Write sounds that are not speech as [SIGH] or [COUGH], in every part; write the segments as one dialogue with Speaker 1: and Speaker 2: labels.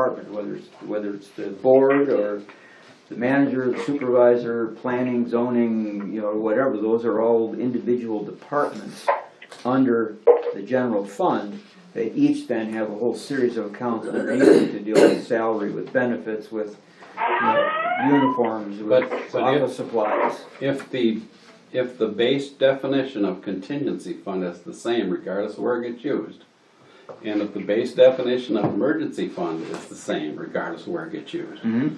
Speaker 1: department, whether it's, whether it's the board or the manager, the supervisor, planning, zoning, you know, whatever, those are all individual departments under the general fund. They each then have a whole series of accounts underneath it to deal with salary, with benefits, with, you know, uniforms, with
Speaker 2: But- but if-
Speaker 1: office supplies.
Speaker 2: If the, if the base definition of contingency fund is the same regardless of where it gets used, and if the base definition of emergency fund is the same regardless of where it gets used,
Speaker 1: Mhm.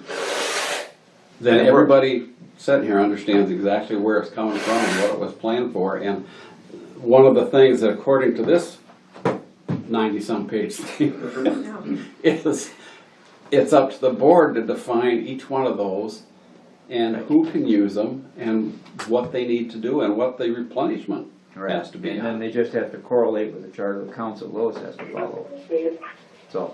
Speaker 2: then everybody sitting here understands exactly where it's coming from and what it was planned for, and one of the things that according to this ninety-some page
Speaker 3: [LAUGHS]
Speaker 2: thing is, it's up to the board to define each one of those and who can use them and what they need to do and what the replenishment has to be
Speaker 1: And then
Speaker 2: on.
Speaker 1: they just have to correlate with the charter of council Lois has to follow. So,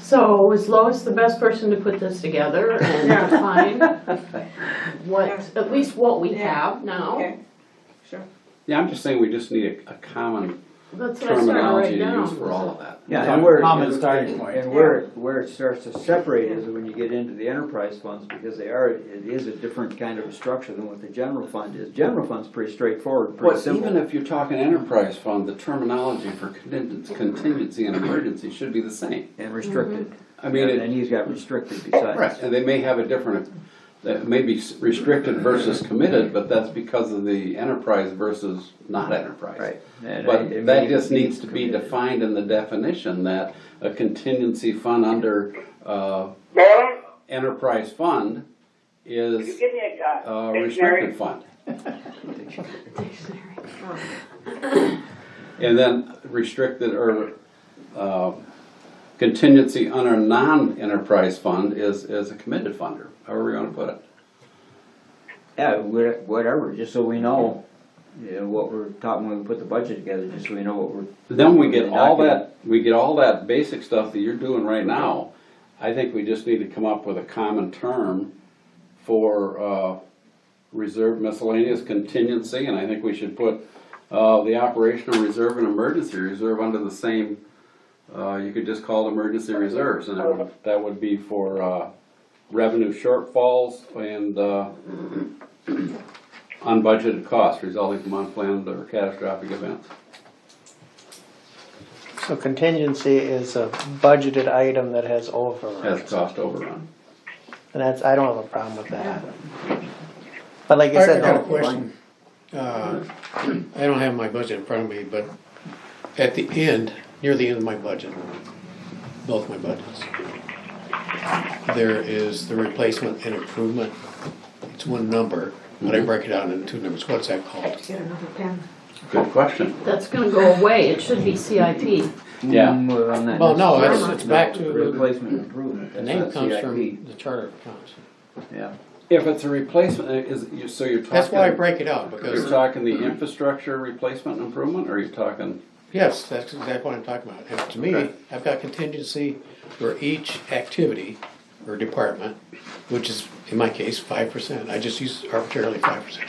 Speaker 3: So is Lois the best person to put this together and
Speaker 4: Yeah.
Speaker 3: define
Speaker 4: [LAUGHS]
Speaker 3: what,
Speaker 4: Yeah.
Speaker 3: at least what we
Speaker 4: Yeah.
Speaker 3: have now?
Speaker 4: Okay, sure.
Speaker 2: Yeah, I'm just saying we just need a, a common
Speaker 3: That's what I started
Speaker 2: terminology
Speaker 3: right
Speaker 2: to use for all
Speaker 3: now.
Speaker 2: of that.
Speaker 1: yeah,
Speaker 5: So
Speaker 1: and where.
Speaker 5: common
Speaker 1: and-
Speaker 5: starting point.
Speaker 1: And where, where it starts to separate is when you get into the enterprise funds, because they are, it is a different kind of a structure than what the general fund is. General fund's pretty straightforward, pretty
Speaker 2: But even
Speaker 1: simple.
Speaker 2: if you're talking enterprise fund, the terminology for contingency, contingency and emergency should be the same.
Speaker 1: And restricted.
Speaker 2: Mm-hmm. I mean,
Speaker 1: And
Speaker 2: it,
Speaker 1: then he's got restricted besides.
Speaker 2: and they may have a different, that may be s- restricted versus committed, but that's because of the enterprise versus not enterprise.
Speaker 1: Right. And I- I
Speaker 2: But
Speaker 1: mean,
Speaker 2: that just
Speaker 1: it
Speaker 2: needs to be
Speaker 1: committed.
Speaker 2: defined in the definition that a contingency fund under, uh,
Speaker 6: Lois,
Speaker 2: enterprise fund
Speaker 6: you
Speaker 2: is
Speaker 6: give me a
Speaker 2: a
Speaker 6: uh,
Speaker 2: restricted
Speaker 6: dictionary.
Speaker 2: fund.
Speaker 3: Dictionary.
Speaker 2: And then restricted or, uh, contingency under non-enterprise fund is, is a committed funder, however we're gonna put it.
Speaker 1: Yeah, wha- whatever, just so we know, you know, what we're talking when we put the budget together, just so we know what we're
Speaker 2: Then we get all that, we get all that basic stuff that you're doing right now. I think we just need to come up with a common term for, uh, reserve miscellaneous contingency, and I think we should put, uh, the operational reserve and emergency reserve under the same, uh, you could just call it emergency reserves, and that would, that would be for, uh, revenue shortfalls and, uh, unbudgeted costs resulting from unplanned or catastrophic events.
Speaker 7: So contingency is a budgeted item that has
Speaker 2: has
Speaker 7: overruns.
Speaker 2: cost overrun.
Speaker 7: And that's, I don't have a problem with that. But like you
Speaker 5: I
Speaker 7: said,
Speaker 5: got a
Speaker 7: though,
Speaker 5: question. Uh, I don't have my budget in front of me, but at the end, near the end of my budget, both my budgets, there is the replacement and improvement. It's one number, but
Speaker 7: Mm-hmm.
Speaker 5: I break it down into two numbers. What's that called?
Speaker 4: Get another pen.
Speaker 2: Good question.
Speaker 3: That's gonna go away, it should be CIP.
Speaker 2: Yeah.
Speaker 1: Well, Mm, on that
Speaker 5: Well, no,
Speaker 1: next-
Speaker 5: it's, it's back
Speaker 1: no,
Speaker 5: to,
Speaker 1: Replacement improvement,
Speaker 5: the
Speaker 1: that's
Speaker 5: name
Speaker 1: not
Speaker 5: comes from
Speaker 1: CIP,
Speaker 5: the charter of accounts.
Speaker 1: yeah.
Speaker 2: If it's a replacement, uh, is, you- so you're talking.
Speaker 5: That's why I break it out,
Speaker 2: You're
Speaker 5: because,
Speaker 2: talking the infrastructure replacement improvement, or are you talking,
Speaker 5: yes, that's exactly what I'm talking about. And to me, I've got contingency for each activity or department, which is, in my case, five percent. I just use arbitrarily five percent.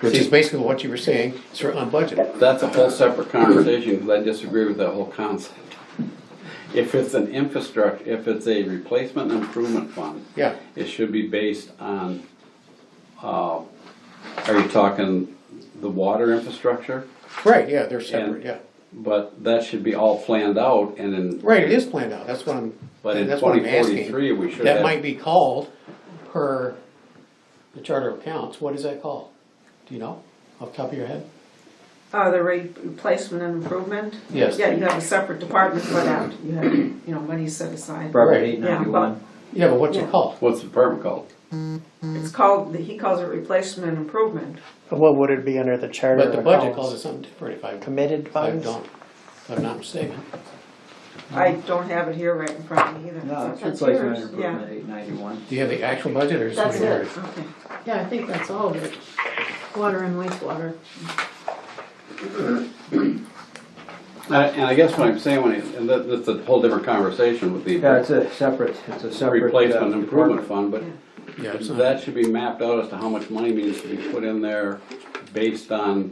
Speaker 5: Which is
Speaker 2: See-
Speaker 5: basically what you were saying, it's for unbudgeted.
Speaker 2: that's a whole separate conversation, because I disagree with that whole concept. If it's an infrastructure, if it's a replacement improvement fund,
Speaker 5: Yeah,
Speaker 2: it should be based on, uh, are you talking the water infrastructure?
Speaker 5: right, yeah, they're separate, yeah.
Speaker 2: But that should be all planned out and in.
Speaker 5: Right, it is planned out, that's what I'm,
Speaker 2: But in
Speaker 5: that's what I'm
Speaker 2: twenty
Speaker 5: asking.
Speaker 2: forty-three, we should have.
Speaker 5: That might be called per the charter of accounts, what is that called? Do you know, off the top of your head?
Speaker 4: Uh, the re- replacement and improvement?
Speaker 5: Yes.
Speaker 4: Yeah, you have a separate department for that, you have, you know, money set aside.
Speaker 1: Property
Speaker 5: Right.
Speaker 1: eight
Speaker 4: Yeah,
Speaker 1: ninety-one,
Speaker 5: Yeah, but what's
Speaker 4: Yeah.
Speaker 5: it called?
Speaker 2: What's the department called?
Speaker 4: It's called, he calls it replacement and improvement.
Speaker 7: what would it be under the charter
Speaker 5: But
Speaker 7: of
Speaker 5: the budget calls it
Speaker 7: accounts?
Speaker 5: something different if I, if
Speaker 7: Committed
Speaker 5: I
Speaker 7: funds?
Speaker 5: don't, if I'm not mistaken.
Speaker 4: I don't have it here right in front of me either.
Speaker 1: no, it's
Speaker 3: That's
Speaker 1: replacement
Speaker 3: yours.
Speaker 1: improvement eight ninety-one.
Speaker 5: Do you have the actual budget or is
Speaker 3: That's
Speaker 5: it?
Speaker 3: it.
Speaker 4: Okay.
Speaker 3: Yeah, I think that's all of it. Water and wastewater.
Speaker 2: Uh, And I guess what I'm saying, when, it- and that, that's a whole different conversation with
Speaker 1: Yeah, it's
Speaker 2: the
Speaker 1: a separate, it's a separate. uh,
Speaker 2: replacement improvement
Speaker 1: department.
Speaker 2: fund, but
Speaker 5: Yeah, it's not.
Speaker 2: that should be mapped out as to how much money needs to be put in there based on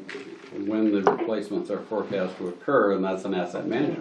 Speaker 2: when the replacements are forecast to occur, and that's an asset management